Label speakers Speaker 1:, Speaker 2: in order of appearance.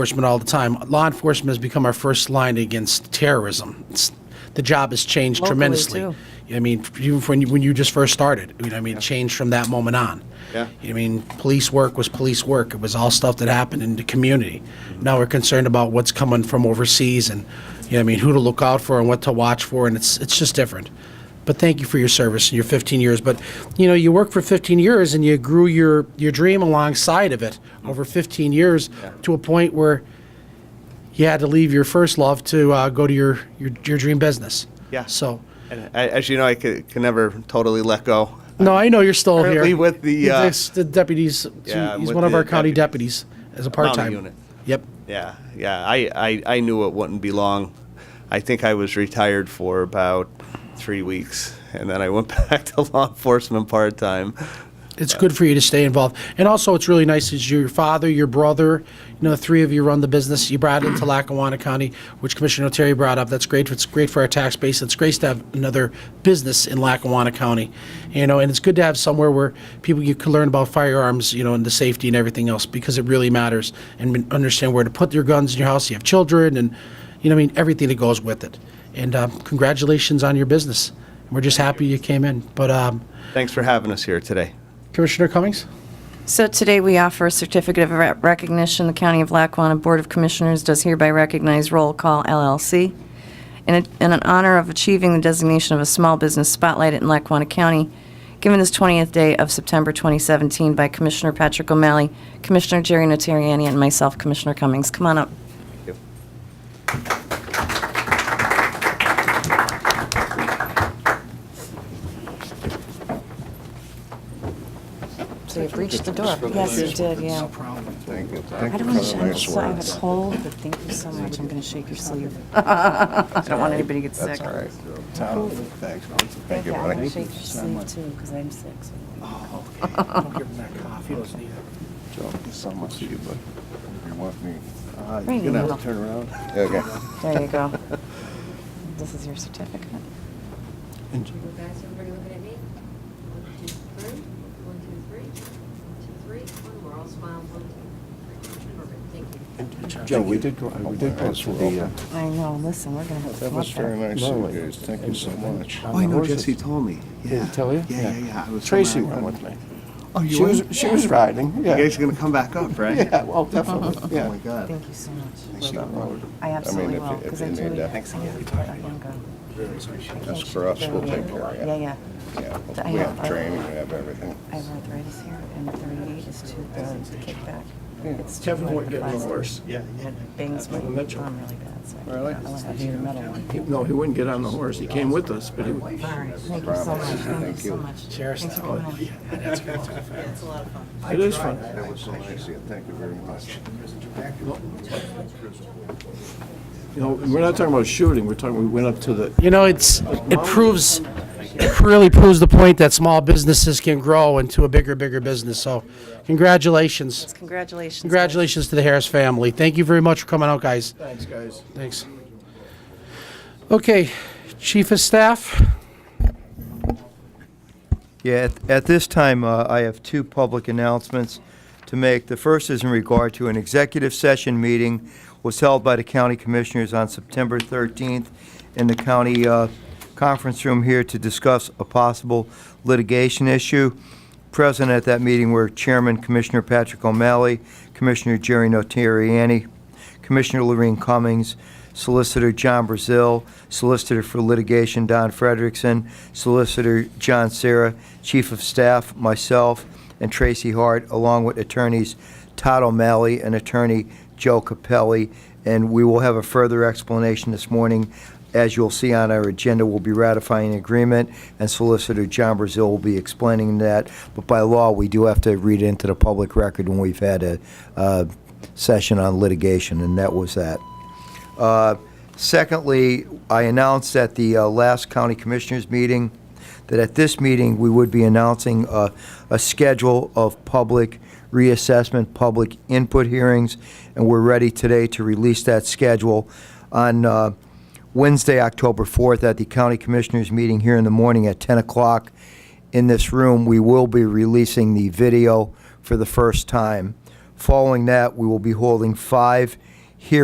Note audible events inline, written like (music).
Speaker 1: enforcement all the time. Law enforcement has become our first line against terrorism. It's, the job has changed
Speaker 2: Locally,
Speaker 1: tremendously.
Speaker 2: too.
Speaker 1: I mean, even when you, when you just first started, you know, I mean, it changed from that moment on.
Speaker 3: Yeah.
Speaker 1: I mean, police work was police work. It was all stuff that happened in the community.
Speaker 3: Mm-hmm.
Speaker 1: Now we're concerned about what's coming from overseas and, you know, I mean, who to look out for and what to watch for, and it's, it's just different. But thank you for your service and your 15 years. But, you know, you worked for 15 years and you grew your, your dream alongside of it over 15 years to a point where you had to leave your first love to uh, go to your, your, your dream business.
Speaker 3: Yeah.
Speaker 1: So,
Speaker 3: And I, as you know, I can, can never totally let go.
Speaker 1: no, I know you're still
Speaker 3: Currently
Speaker 1: here.
Speaker 3: with the,
Speaker 1: He's
Speaker 3: uh,
Speaker 1: ex- the deputies.
Speaker 3: Yeah,
Speaker 1: he's
Speaker 3: with
Speaker 1: one of
Speaker 3: the
Speaker 1: our county
Speaker 3: deputies.
Speaker 1: deputies, as a part time
Speaker 3: unit.
Speaker 1: Yep.
Speaker 3: Yeah, yeah. I, I, I knew it wouldn't be long. I think I was retired for about three weeks, and then I went (laughs) back to law enforcement part time.
Speaker 1: It's good for you to stay involved, and also it's really nice is your father, your brother, you know, the three of you run the business. You brought it into Lackawanna County, which Commissioner Terry brought up. That's great. It's great for our tax base. It's great to have another business in Lackawanna County, you know, and it's good to have somewhere where people you can learn about firearms, you know, and the safety and everything else because it really matters and understand where to put your guns in your house. You have children, and you know, I mean, everything that goes with it. And um, congratulations on your business. We're just happy you came in, but. Um,
Speaker 3: Thanks for having us here today.
Speaker 1: Commissioner Cummings?
Speaker 2: So today we offer a certificate of re- recognition. The County of Lackawanna Board of Commissioners does hereby recognize Roll Call LLC in in honor of achieving the designation of a small business spotlight in Lackawanna County, given this 20th day of September 2017 by Commissioner Patrick O'Malley, Commissioner Jerry Natariani, and myself, Commissioner Cummings. Come on up. So you've reached the door. Yes, you did, yeah.
Speaker 1: problem.
Speaker 4: Thank you.
Speaker 2: I don't want to, I'm so, I have a cold, but thank you so much. I'm going to shake your sleeve. (laughs) I don't want anybody to get sick.
Speaker 4: That's all right. Tom, thanks. Thank you,
Speaker 2: Yeah, I'm
Speaker 4: buddy.
Speaker 2: going to shake your sleeve too, because I'm sick. so-
Speaker 4: Joe, so much Uh, to you, bud. You want me?
Speaker 2: you're Right, gonna have to no. turn
Speaker 4: around. Okay.
Speaker 2: There you go. This is your certificate.
Speaker 5: You guys, everybody looking at me? One, two, three, one, two, three, one, two, three, one, we're all smiling, one, two, three. Perfect, thank
Speaker 4: (laughs)
Speaker 5: you.
Speaker 4: Joe, we did go, we did go to the. uh,
Speaker 2: I know, listen, we're going to have to
Speaker 4: That
Speaker 2: come up
Speaker 4: was very
Speaker 2: there.
Speaker 4: nice of you guys. Thank you so much.
Speaker 6: Oh, I know Jesse told me. Yeah.
Speaker 4: uh, Did he tell you?
Speaker 6: Yeah, yeah, yeah. I was
Speaker 4: Tracy
Speaker 6: somewhere-
Speaker 4: went with me.
Speaker 6: Oh, you
Speaker 4: She was,
Speaker 6: went?
Speaker 4: she was riding,
Speaker 6: You
Speaker 4: yeah.
Speaker 6: guys are gonna come back up, (laughs) right?
Speaker 4: Yeah,
Speaker 2: (laughs)
Speaker 4: well, (laughs) definitely,
Speaker 6: Oh
Speaker 4: yeah.
Speaker 6: my God.
Speaker 2: Thank you so much.
Speaker 4: She rode.
Speaker 2: I absolutely
Speaker 4: if you-
Speaker 2: will,
Speaker 4: if
Speaker 2: because
Speaker 4: you
Speaker 2: I
Speaker 4: need
Speaker 2: totally
Speaker 4: that.
Speaker 2: get it. I'll get that young girl.
Speaker 4: That's for us, we'll take care of
Speaker 2: Yeah,
Speaker 4: you.
Speaker 2: yeah.
Speaker 4: Yeah,
Speaker 2: I
Speaker 4: we
Speaker 2: have-
Speaker 4: have training, we have everything.
Speaker 2: I have arthritis here, and 38 is too early to kick back. It's too late for plastic.
Speaker 6: Yeah, yeah.
Speaker 2: And it bangs my thumb really bad, so I
Speaker 6: Really?
Speaker 2: I want to have your metal one.
Speaker 7: No, he wouldn't get on the horse. He came with us, but he,
Speaker 2: All right, thank you so much, thank you so much. Thanks for coming in.
Speaker 7: it is fun.
Speaker 4: That was so nice of you. Thank you very much.
Speaker 7: You know, we're not talking about shooting. We're talking, we went up to the,
Speaker 1: You know, it's, it proves, it really proves the point that small businesses can grow into a bigger, bigger business. So congratulations.
Speaker 2: Congratulations. guys.
Speaker 1: Congratulations to the Harris family. Thank you very much for coming out, guys.
Speaker 7: thanks, guys.
Speaker 1: Thanks. Okay, Chief of Staff,
Speaker 8: Yeah, at, at this time, uh, I have two public announcements to make. The first is in regard to an executive session meeting was held by the county commissioners on September 13th in the county uh, conference room here to discuss a possible litigation issue. Present at that meeting were Chairman Commissioner Patrick O'Malley, Commissioner Jerry Notarianni, Commissioner Lorraine Cummings, Solicitor John Brazil, Solicitor for Litigation Don Frederickson, Solicitor John Sarah, Chief of Staff, myself, and Tracy Hart, along with attorneys Todd O'Malley and attorney Joe Capelli. And we will have a further explanation this morning. As you'll see on our agenda, we'll be ratifying an agreement, and Solicitor John Brazil will be explaining that. But by law, we do have to read it into the public record when we've had a uh, session on litigation, and that was that. Uh, Secondly, I announced at the uh, last county commissioners meeting that at this meeting, we would be announcing uh, a schedule of public reassessment, public input hearings, and we're ready today to release that schedule on uh, Wednesday, October 4th, at the county commissioners meeting here in the morning at 10 o'clock in this room, we will be releasing the video for the first time. Following that, we will be holding five